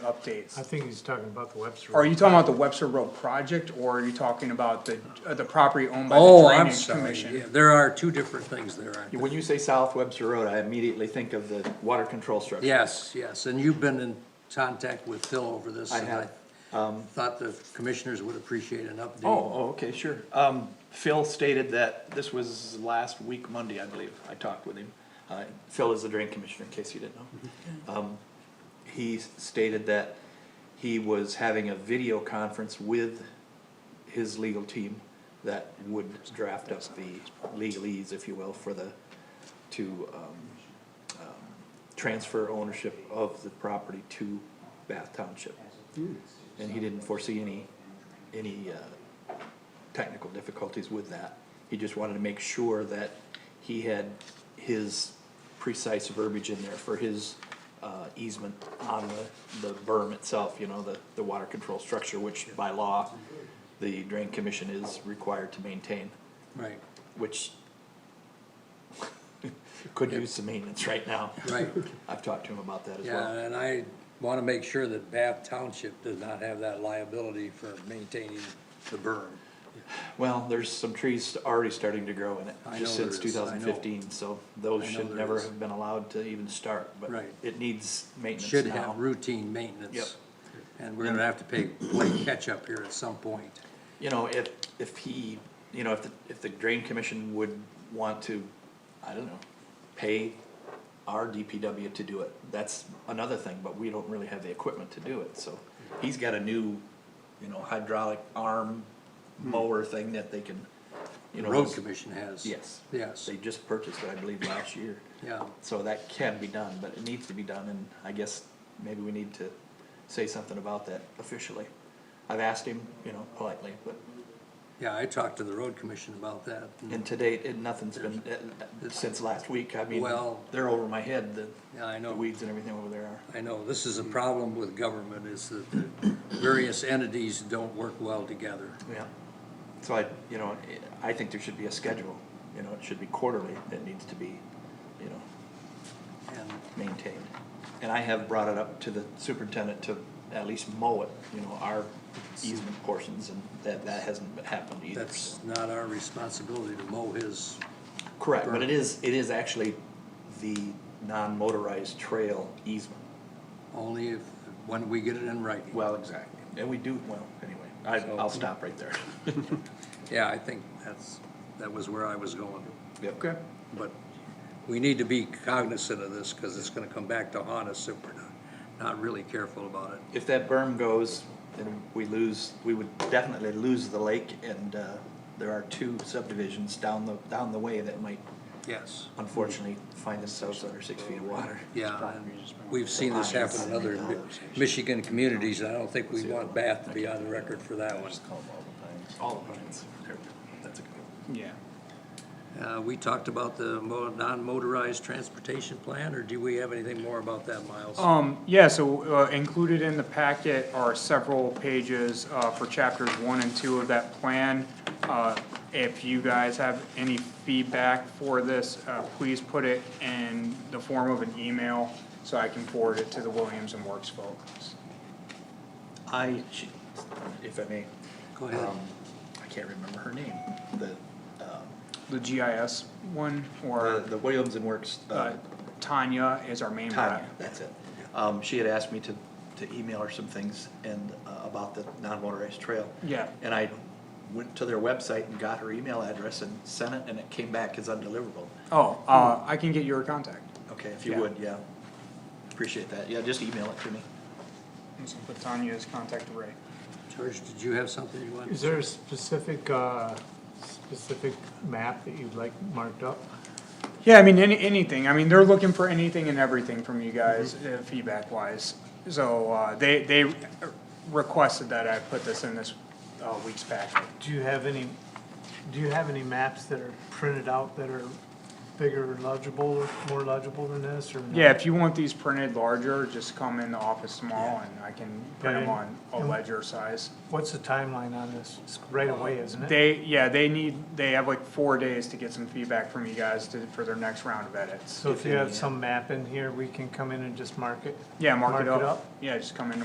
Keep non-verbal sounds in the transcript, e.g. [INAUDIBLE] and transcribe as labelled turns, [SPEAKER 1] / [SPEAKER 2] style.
[SPEAKER 1] updates.
[SPEAKER 2] I think he's talking about the Webster.
[SPEAKER 1] Are you talking about the Webster Road project, or are you talking about the, uh, the property owned by the
[SPEAKER 3] Oh, I'm
[SPEAKER 1] Drainage
[SPEAKER 3] sorry, yeah,
[SPEAKER 1] Commission?
[SPEAKER 3] there are two different things there, aren't there?
[SPEAKER 4] When you say South Webster Road, I immediately think of the water control structure.
[SPEAKER 3] Yes, yes, and you've been in contact with Phil over this.
[SPEAKER 4] I
[SPEAKER 3] and
[SPEAKER 4] have, um,
[SPEAKER 3] Thought the commissioners would appreciate an update.
[SPEAKER 4] Oh, oh, okay, sure. Um, Phil stated that this was last week Monday, I believe. I talked with him. Uh, Phil is the drain commissioner, in case you didn't know. Um, he s- stated that he was having a video conference with his legal team that would draft up the legalese, if you will, for the, to, um, transfer ownership of the property to Bath Township. And he didn't foresee any, any, uh, technical difficulties with that. He just wanted to make sure that he had his precise verbiage in there for his, uh, easement on the, the berm itself, you know, the, the water control structure, which by law, the drain commission is required to maintain,
[SPEAKER 3] Right,
[SPEAKER 4] which [LAUGHS] could use some maintenance right now. [LAUGHS]
[SPEAKER 3] right,
[SPEAKER 4] I've talked to him about that as
[SPEAKER 3] yeah,
[SPEAKER 4] well.
[SPEAKER 3] and I wanna make sure that Bath Township does not have that liability for maintaining the berm.
[SPEAKER 4] Well, there's some trees already starting to grow in it,
[SPEAKER 3] I
[SPEAKER 4] just
[SPEAKER 3] know
[SPEAKER 4] since
[SPEAKER 3] there
[SPEAKER 4] two
[SPEAKER 3] is, I know.
[SPEAKER 4] thousand fifteen, so
[SPEAKER 3] I
[SPEAKER 4] those
[SPEAKER 3] know
[SPEAKER 4] should
[SPEAKER 3] there
[SPEAKER 4] never
[SPEAKER 3] is.
[SPEAKER 4] have been allowed to even start, but
[SPEAKER 3] Right.
[SPEAKER 4] it needs maintenance
[SPEAKER 3] Should have
[SPEAKER 4] now.
[SPEAKER 3] routine maintenance.
[SPEAKER 4] Yep.
[SPEAKER 3] And we're gonna have to pay, play catch-up here at some point.
[SPEAKER 4] You know, if, if he, you know, if the, if the drain commission would want to, I don't know, pay our DPW to do it, that's another thing, but we don't really have the equipment to do it, so. He's got a new, you know, hydraulic arm mower thing that they can, you know.
[SPEAKER 3] Hmm. Road
[SPEAKER 4] it's-
[SPEAKER 3] Commission has.
[SPEAKER 4] Yes.
[SPEAKER 3] Yes,
[SPEAKER 4] They just purchased it, I believe, last year.
[SPEAKER 3] yeah,
[SPEAKER 4] So that can be done, but it needs to be done, and I guess maybe we need to say something about that officially. I've asked him, you know, politely, but,
[SPEAKER 3] yeah, I talked to the Road Commission about that. and-
[SPEAKER 4] and to date, it, nothing's been, uh, since last week, I mean,
[SPEAKER 3] Well-
[SPEAKER 4] they're over my head, the
[SPEAKER 3] Yeah, I
[SPEAKER 4] the
[SPEAKER 3] know.
[SPEAKER 4] weeds and everything over there are.
[SPEAKER 3] I know, this is a problem with government, is that the various entities don't work well together.
[SPEAKER 4] Yeah. So I, you know, I think there should be a schedule, you know, it should be quarterly, it needs to be, you know,
[SPEAKER 3] And,
[SPEAKER 4] maintained. And I have brought it up to the superintendent to at least mow it, you know, our easement portions, and that, that hasn't happened either.
[SPEAKER 3] That's not our responsibility to mow his,
[SPEAKER 4] Correct, but it is, it is actually the non-motorized trail easement.
[SPEAKER 3] only if, when we get it in writing.
[SPEAKER 4] Well, exactly. And we do, well, anyway, I, I'll stop right [LAUGHS] there.
[SPEAKER 3] Yeah, I think that's, that was where I was going.
[SPEAKER 4] Okay.
[SPEAKER 3] But we need to be cognizant of this, because it's gonna come back to haunt us if we're not, not really careful about it.
[SPEAKER 4] If that berm goes, then we lose, we would definitely lose the lake, and, uh, there are two subdivisions down the, down the way that might
[SPEAKER 3] Yes,
[SPEAKER 4] unfortunately find themselves under six feet of water.
[SPEAKER 3] yeah. We've seen this happen in other Mi- Michigan communities, and I don't think we want Bath to be on the record for that one.
[SPEAKER 4] All the pines. That's a good
[SPEAKER 1] Yeah.
[SPEAKER 3] Uh, we talked about the mo- non-motorized transportation plan, or do we have anything more about that, Miles?
[SPEAKER 1] Um, yeah, so, uh, included in the packet are several pages, uh, for chapters one and two of that plan. Uh, if you guys have any feedback for this, uh, please put it in the form of an email so I can forward it to the Williams and Works folks.
[SPEAKER 4] I, she- if I may,
[SPEAKER 3] Go ahead.
[SPEAKER 4] um, I can't remember her name, the, um,
[SPEAKER 1] The GIS one,
[SPEAKER 4] the,
[SPEAKER 1] or,
[SPEAKER 4] the Williams and Works,
[SPEAKER 1] uh,
[SPEAKER 4] uh,
[SPEAKER 1] Tanya is our main rep.
[SPEAKER 4] Tanya, that's it. Um, she had asked me to, to email her some things and, uh, about the non-motorized trail.
[SPEAKER 1] Yeah.
[SPEAKER 4] And I went to their website and got her email address and sent it, and it came back as undeliverable.
[SPEAKER 1] Oh, uh, I can get your contact.
[SPEAKER 4] Okay, if you
[SPEAKER 1] Yeah.
[SPEAKER 4] would, yeah, appreciate that, yeah, just email it to me.
[SPEAKER 1] Let's put Tanya's contact right.
[SPEAKER 3] George, did you have something you wanted?
[SPEAKER 2] Is there a specific, uh, specific map that you'd like marked up?
[SPEAKER 1] Yeah, I mean, any, anything, I mean, they're looking for anything and everything from you guys, uh, feedback wise. So, uh, they, they requested that I put this in this, uh, week's packet.
[SPEAKER 2] Do you have any, do you have any maps that are printed out that are bigger legible, or more legible than this, or? no?
[SPEAKER 1] Yeah, if you want these printed larger, just come in the office tomorrow and I can print them on a ledger size.
[SPEAKER 2] What's the timeline on this? It's right away, isn't it?
[SPEAKER 1] They, yeah, they need, they have like four days to get some feedback from you guys to, for their next round of edits.
[SPEAKER 2] So if you have some map in here, we can come in and just mark it?
[SPEAKER 1] Yeah, mark it up.
[SPEAKER 2] up?
[SPEAKER 1] Yeah, just come in